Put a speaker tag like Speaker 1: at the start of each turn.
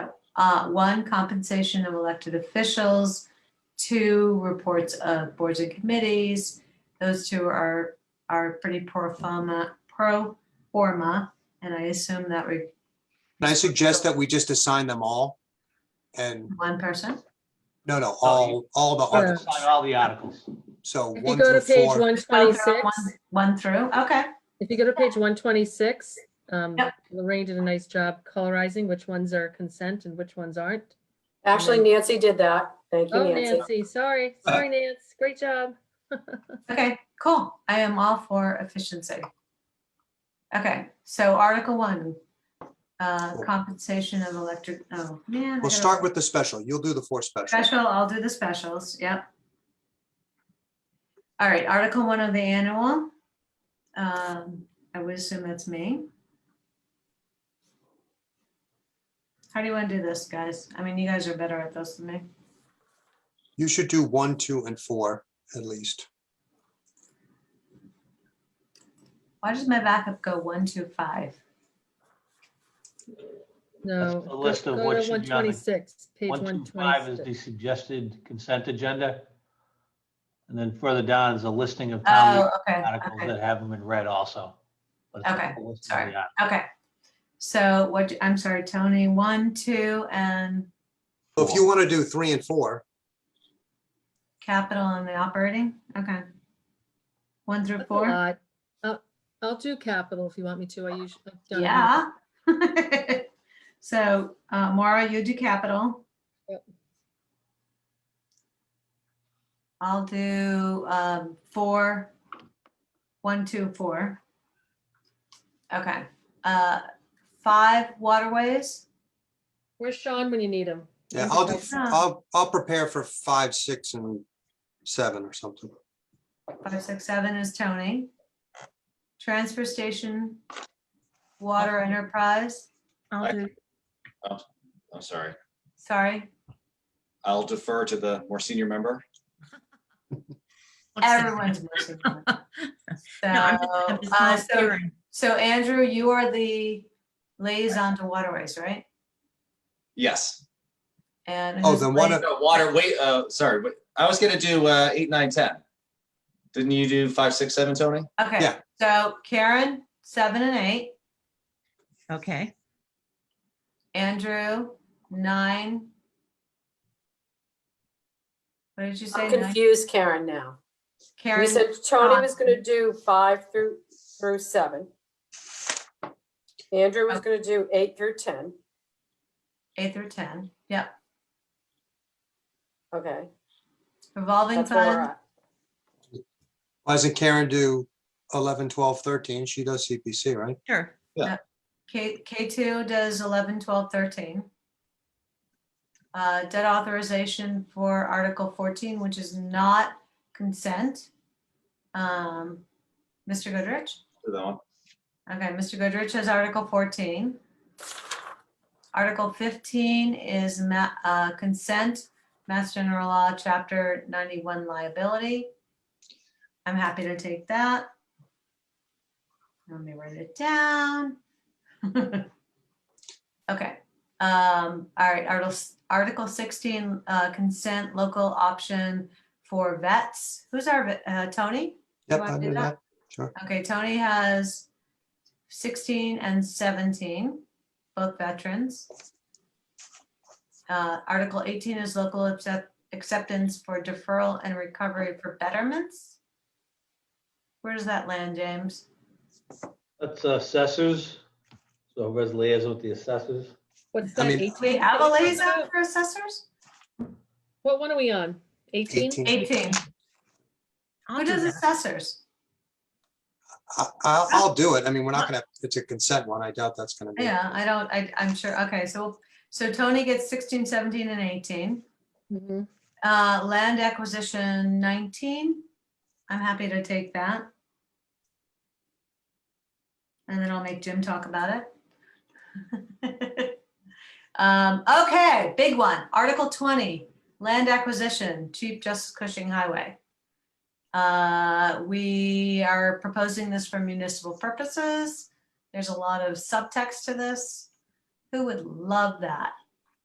Speaker 1: Uh, one, compensation of elected officials. Two, reports of boards and committees. Those two are, are pretty pro forma, pro forma, and I assume that we,
Speaker 2: Can I suggest that we just assign them all? And,
Speaker 1: one person?
Speaker 2: no, no,
Speaker 3: Oh, you-
Speaker 2: all, all the
Speaker 4: Sure.
Speaker 2: articles.
Speaker 3: Sign all the articles.
Speaker 2: So
Speaker 4: If you
Speaker 2: one
Speaker 4: go
Speaker 2: through
Speaker 4: to page
Speaker 2: four.
Speaker 4: one
Speaker 1: One through-
Speaker 4: twenty-six,
Speaker 1: one- One through, okay.
Speaker 4: if you go to page one twenty-six, um,
Speaker 1: Yep.
Speaker 4: Lorraine did a nice job colorizing which ones are consent and which ones aren't.
Speaker 5: Actually, Nancy did that. Thank you,
Speaker 4: Oh,
Speaker 5: Nancy.
Speaker 4: Nancy, sorry,
Speaker 3: Uh,
Speaker 4: sorry, Nancy, great job.
Speaker 1: Okay, cool. I am all for efficiency. Okay, so Article One, uh,
Speaker 2: Cool.
Speaker 1: compensation of electric, oh, man. I
Speaker 2: We'll
Speaker 1: gotta-
Speaker 2: start with the special. You'll do the four special.
Speaker 1: Special, I'll do the specials, yep. All right, Article One of the annual. Um, I would assume that's me. How do you want to do this, guys? I mean, you guys are better at this than me.
Speaker 2: You should do one, two, and four at least.
Speaker 1: Why does my backup go one, two, five?
Speaker 4: No.
Speaker 3: the
Speaker 4: go-
Speaker 3: list of
Speaker 4: go
Speaker 3: what
Speaker 4: to
Speaker 3: should be on the-
Speaker 4: 126, Page
Speaker 3: One, two, five is the
Speaker 4: 126.
Speaker 3: suggested consent agenda. And then further down is a listing of
Speaker 1: Oh,
Speaker 3: town meeting
Speaker 1: okay,
Speaker 3: articles
Speaker 1: okay.
Speaker 3: Um, that haven't been read also. But it's a
Speaker 1: Okay,
Speaker 3: full list of
Speaker 1: sorry.
Speaker 3: the articles.
Speaker 1: Okay, so what, do- I'm sorry, Tony, one, two, and
Speaker 2: So If you want to do three and four,
Speaker 1: capital and the operating, okay. One through
Speaker 4: That's a
Speaker 1: four,
Speaker 4: lot. Uh, I'll- I'll do capital if you want me to. I usually. I've done it.
Speaker 1: yeah. So, uh, Maura, you do capital.
Speaker 4: Yep.
Speaker 1: I'll do, um, four, one, two, four. Okay, uh, five waterways,
Speaker 4: Where's Sean when you need him?
Speaker 2: yeah, I'll do,
Speaker 1: Yeah.
Speaker 2: I'll, I'll prepare for five, six, and seven or something.
Speaker 1: Five, six, seven is Tony. Transfer station, water enterprise,
Speaker 6: I-
Speaker 4: I'll do,
Speaker 6: I'm sorry.
Speaker 1: sorry,
Speaker 6: I'll defer to the more senior member.
Speaker 7: Looks like-
Speaker 1: everyone's missing one.
Speaker 7: No, I'm just-
Speaker 1: So,
Speaker 7: I'm just
Speaker 1: uh, So,
Speaker 7: volunteering.
Speaker 1: so Andrew, you are the liaison to waterways, right?
Speaker 6: Yes.
Speaker 1: And.
Speaker 2: Oh,
Speaker 1: who's
Speaker 2: then one
Speaker 1: la-
Speaker 2: of,
Speaker 6: No, Water, wait, uh, sorry, but I was gonna do uh, eight, nine, ten. Didn't you do five, six, seven, Tony?
Speaker 1: Okay,
Speaker 2: yeah.
Speaker 1: so Karen, seven and eight,
Speaker 7: Okay,
Speaker 1: Andrew, nine. What did you say?
Speaker 5: I'm
Speaker 1: nine?
Speaker 5: confused, Karen, now. You
Speaker 1: Karen,
Speaker 5: said Tony was gonna do five through, through seven. Andrew was gonna do eight through 10,
Speaker 1: eight through 10, yep,
Speaker 5: okay?
Speaker 1: revolving
Speaker 5: That's where we're
Speaker 1: fund.
Speaker 5: at.
Speaker 2: why doesn't Karen do 11, 12, 13? She does CPC, right?
Speaker 7: sure.
Speaker 1: K, K2 does 11, 12, 13. Uh, Debt authorization for Article 14, which is not consent. Um, Mr. Goodrich?
Speaker 6: For that one.
Speaker 1: Okay, Mr. Goodrich has Article 14. Article 15 is ma- uh, consent, Mass General Law, Chapter 91 liability. I'm happy to take that. Let me write it down. Okay, um, all right, Article, Article 16, uh, consent, local option for vets. Who's our, vet- uh, Tony? You
Speaker 2: Yep,
Speaker 1: wanna
Speaker 2: I
Speaker 1: do
Speaker 2: do
Speaker 1: that?
Speaker 2: that. Sure.
Speaker 1: Okay, Tony has sixteen and seventeen, both veterans. Uh, Article eighteen is local accept, acceptance for deferral and recovery for betterments. Where does that land, James?
Speaker 3: That's assessors. So whoever's liaison with the assessors.
Speaker 4: what's
Speaker 2: I
Speaker 4: that?
Speaker 2: mean-
Speaker 4: 18?
Speaker 1: We have a liaison for assessors?
Speaker 4: What one are we on? Eighteen?
Speaker 2: 18.
Speaker 1: Eighteen.
Speaker 7: I'll
Speaker 1: Who
Speaker 7: do
Speaker 1: does
Speaker 7: that.
Speaker 1: assessors?
Speaker 2: I, I'll, I'll do it. I mean, we're not gonna, it's a consent one. I doubt that's gonna be.
Speaker 1: Yeah, I don't, I, I'm sure, okay, so, so Tony gets 16, 17, and eighteen.
Speaker 4: Mhm.
Speaker 1: Uh, land acquisition nineteen, I'm happy to take that. And then I'll make Jim talk about it. Um, okay, big one, Article twenty, land acquisition, Chief Justice Cushing Highway. Uh, we are proposing this for municipal purposes. There's a lot of subtext to this. Who would love that?